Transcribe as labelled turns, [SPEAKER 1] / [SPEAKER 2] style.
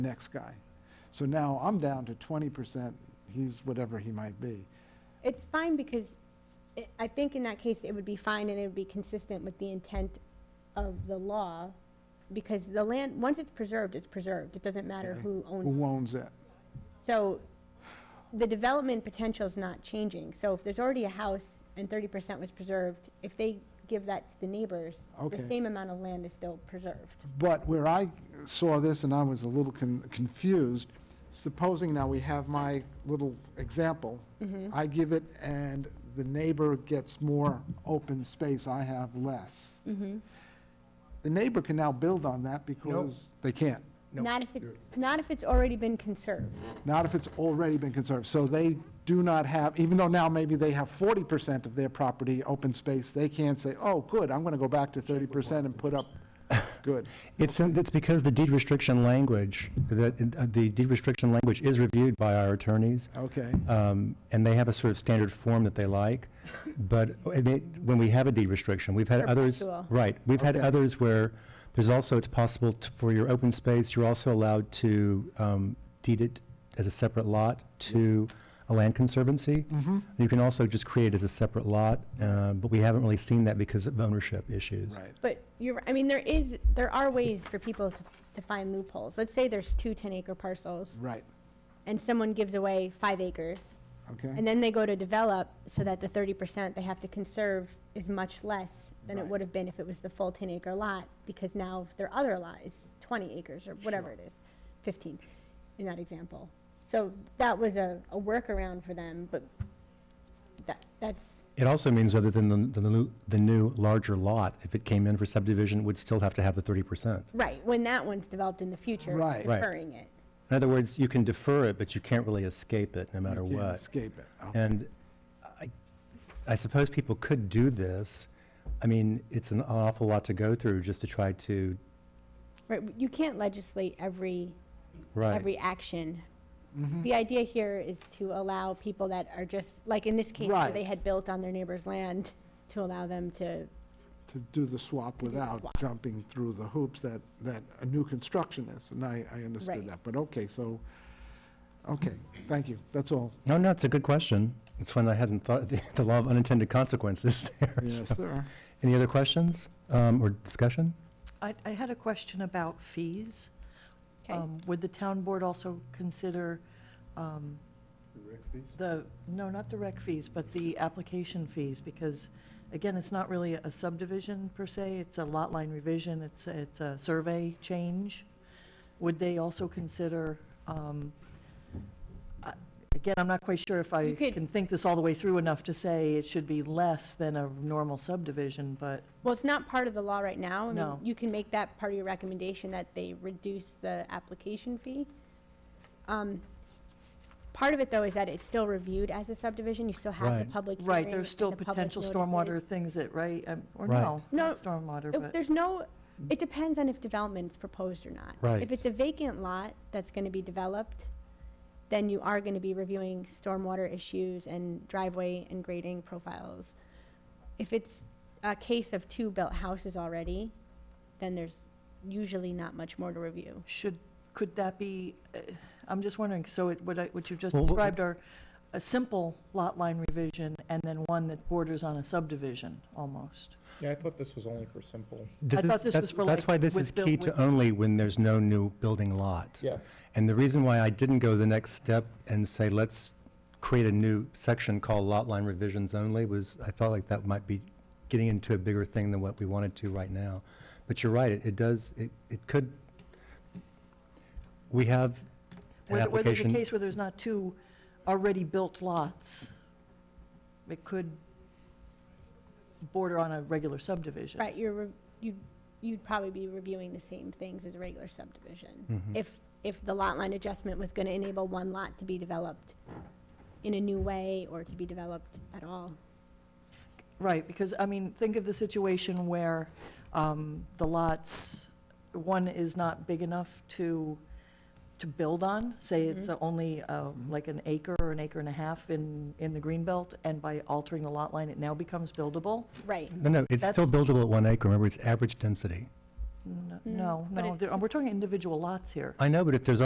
[SPEAKER 1] next guy. So now I'm down to twenty percent, he's whatever he might be.
[SPEAKER 2] It's fine because it- I think in that case, it would be fine and it would be consistent with the intent of the law. Because the land, once it's preserved, it's preserved. It doesn't matter
[SPEAKER 1] okay?
[SPEAKER 2] who owns
[SPEAKER 1] Who owns it.
[SPEAKER 2] So the development potential's not changing. So if there's already a house and thirty percent was preserved, if they give that to the neighbors,
[SPEAKER 1] Okay.
[SPEAKER 2] the same amount of land is still preserved.
[SPEAKER 1] But where I saw this and I was a little con- confused, supposing now we have my little example,
[SPEAKER 2] Mm-hmm.
[SPEAKER 1] I give it and the neighbor gets more open space, I have less.
[SPEAKER 2] Mm-hmm.
[SPEAKER 1] The neighbor can now build on that because they can't,
[SPEAKER 3] No,
[SPEAKER 2] Not if it's, not if it's already been conserved.
[SPEAKER 1] not if it's already been conserved. So they do not have, even though now maybe they have forty percent of their property open space, they can't say, oh, good, I'm gonna go back to thirty percent and put up, good.
[SPEAKER 4] It's, it's because the deed restriction language, that, uh, the deed restriction language is reviewed by our attorneys.
[SPEAKER 1] Okay.
[SPEAKER 4] Um, and they have a sort of standard form that they like. But I mean, when we have a deed restriction, we've had others.
[SPEAKER 2] Perpetual.
[SPEAKER 4] Right, we've had
[SPEAKER 1] Okay.
[SPEAKER 4] others where there's also, it's possible t- for your open space, you're also allowed to, um, deed it as a separate lot to a land conservancy.
[SPEAKER 1] Mm-hmm.
[SPEAKER 4] You can also just create it as a separate lot, uh, but we haven't really seen that because of ownership issues.
[SPEAKER 1] Right.
[SPEAKER 2] But you're, I mean, there is, there are ways for people to, to find loopholes. Let's say there's two 10-acre parcels,
[SPEAKER 1] Right,
[SPEAKER 2] and someone gives away five acres,
[SPEAKER 1] okay.
[SPEAKER 2] and then they go to develop, so that the 30% they have to conserve is much less than it
[SPEAKER 1] Right.
[SPEAKER 2] would have been if it was the full 10-acre lot, because now their other lot is 20 acres, or whatever it is, 15, in that example. So that was a, a workaround for them, but that, that's,
[SPEAKER 4] It also means other than the, the new, the new larger lot, if it came in for subdivision, would still have to have the thirty percent.
[SPEAKER 2] right, when that one's developed in the future,
[SPEAKER 1] Right.
[SPEAKER 4] Right.
[SPEAKER 2] deferring it.
[SPEAKER 4] In other words, you can defer it, but you can't really escape it, no matter
[SPEAKER 1] Can't
[SPEAKER 4] what.
[SPEAKER 1] Escape it. Oh,
[SPEAKER 4] And I, I suppose people could do this. I mean, it's an awful lot to go through just to try to,
[SPEAKER 2] Right, you can't legislate every
[SPEAKER 4] right.
[SPEAKER 2] every action.
[SPEAKER 3] Mm-hmm.
[SPEAKER 2] The idea here is to allow people that are just, like in this case, where they
[SPEAKER 1] Right.
[SPEAKER 2] had built on their neighbor's land, to allow them to,
[SPEAKER 1] To do the swap without
[SPEAKER 2] swap.
[SPEAKER 1] jumping through the hoops that, that a new construction is, and I, I understood
[SPEAKER 2] Right.
[SPEAKER 1] that. But okay, so, okay, thank you, that's all.
[SPEAKER 4] No, no, it's a good question. It's one I hadn't thought, the law of unintended consequences there.
[SPEAKER 1] Yes,
[SPEAKER 4] So,
[SPEAKER 1] sir.
[SPEAKER 4] Any other questions, um, or discussion?
[SPEAKER 3] I, I had a question about fees.
[SPEAKER 2] Okay.
[SPEAKER 3] Um, Would the town board also consider um, the, no, not the rec fees, but the application fees? Because, again, it's not really a subdivision per se, it's a lot line revision, it's, it's a survey change. Would they also consider, um, I- again, I'm not quite sure if I
[SPEAKER 2] You could-
[SPEAKER 3] can think this all the way through enough to say it should be less than a normal subdivision, but
[SPEAKER 2] well, it's not part of the law right now. I mean,
[SPEAKER 3] No.
[SPEAKER 2] You can make that part of your recommendation, that they reduce the application fee. Um, Part of it, though, is that it's still reviewed as a subdivision, you still have the
[SPEAKER 4] Right.
[SPEAKER 2] public hearing.
[SPEAKER 3] Right, there's still
[SPEAKER 2] and the public
[SPEAKER 3] potential
[SPEAKER 2] notices.
[SPEAKER 3] stormwater things that, right, um, or
[SPEAKER 4] Right.
[SPEAKER 3] no,
[SPEAKER 2] No,
[SPEAKER 3] not stormwater,
[SPEAKER 2] If
[SPEAKER 3] but,
[SPEAKER 2] There's no, it depends on if development's proposed or not.
[SPEAKER 4] Right.
[SPEAKER 2] If it's a vacant lot that's gonna be developed, then you are gonna be reviewing stormwater issues and driveway and grading profiles. If it's a case of two built houses already, then there's usually not much more to review.
[SPEAKER 3] should, could that be, uh, I'm just wondering, so it, what I, what you've just
[SPEAKER 4] Well, what-
[SPEAKER 3] described are a simple lot line revision and then one that borders on a subdivision, almost?
[SPEAKER 5] Yeah, I thought this was only for simple.
[SPEAKER 4] This
[SPEAKER 3] I
[SPEAKER 4] is-
[SPEAKER 3] thought this
[SPEAKER 4] that's-
[SPEAKER 3] was for,
[SPEAKER 4] That's
[SPEAKER 3] like,
[SPEAKER 4] why this
[SPEAKER 3] with
[SPEAKER 4] is
[SPEAKER 3] the-
[SPEAKER 4] key to
[SPEAKER 3] with-
[SPEAKER 4] only when there's no new building lot.
[SPEAKER 5] Yeah.
[SPEAKER 4] And the reason why I didn't go the next step and say, let's create a new section called lot line revisions only was, I felt like that might be getting into a bigger thing than what we wanted to right now. But you're right, it, it does, it, it could, we have an
[SPEAKER 3] Where where there's a
[SPEAKER 4] application.
[SPEAKER 3] case where there's not two already built lots, it could border on a regular subdivision.
[SPEAKER 2] Right, you're, re- you'd, you'd probably be reviewing the same things as a regular subdivision.
[SPEAKER 4] Mhm.
[SPEAKER 2] If, if the lot line adjustment was gonna enable one lot to be developed in a new way or to be developed at all.
[SPEAKER 3] Right, because, I mean, think of the situation where um, the lots, one is not big enough to, to build on, say
[SPEAKER 2] Mm-hmm.
[SPEAKER 3] it's only uh, like an acre or an acre and a half in, in the green belt, and by altering the lot line, it now becomes buildable?
[SPEAKER 2] Right.
[SPEAKER 4] No, no, it's still
[SPEAKER 3] That's-
[SPEAKER 4] buildable at one acre, remember, it's average density.
[SPEAKER 3] N-
[SPEAKER 2] Mm,
[SPEAKER 3] No,
[SPEAKER 2] but
[SPEAKER 3] no,
[SPEAKER 2] it-
[SPEAKER 3] there- we're talking individual lots here.
[SPEAKER 4] I know, but if there's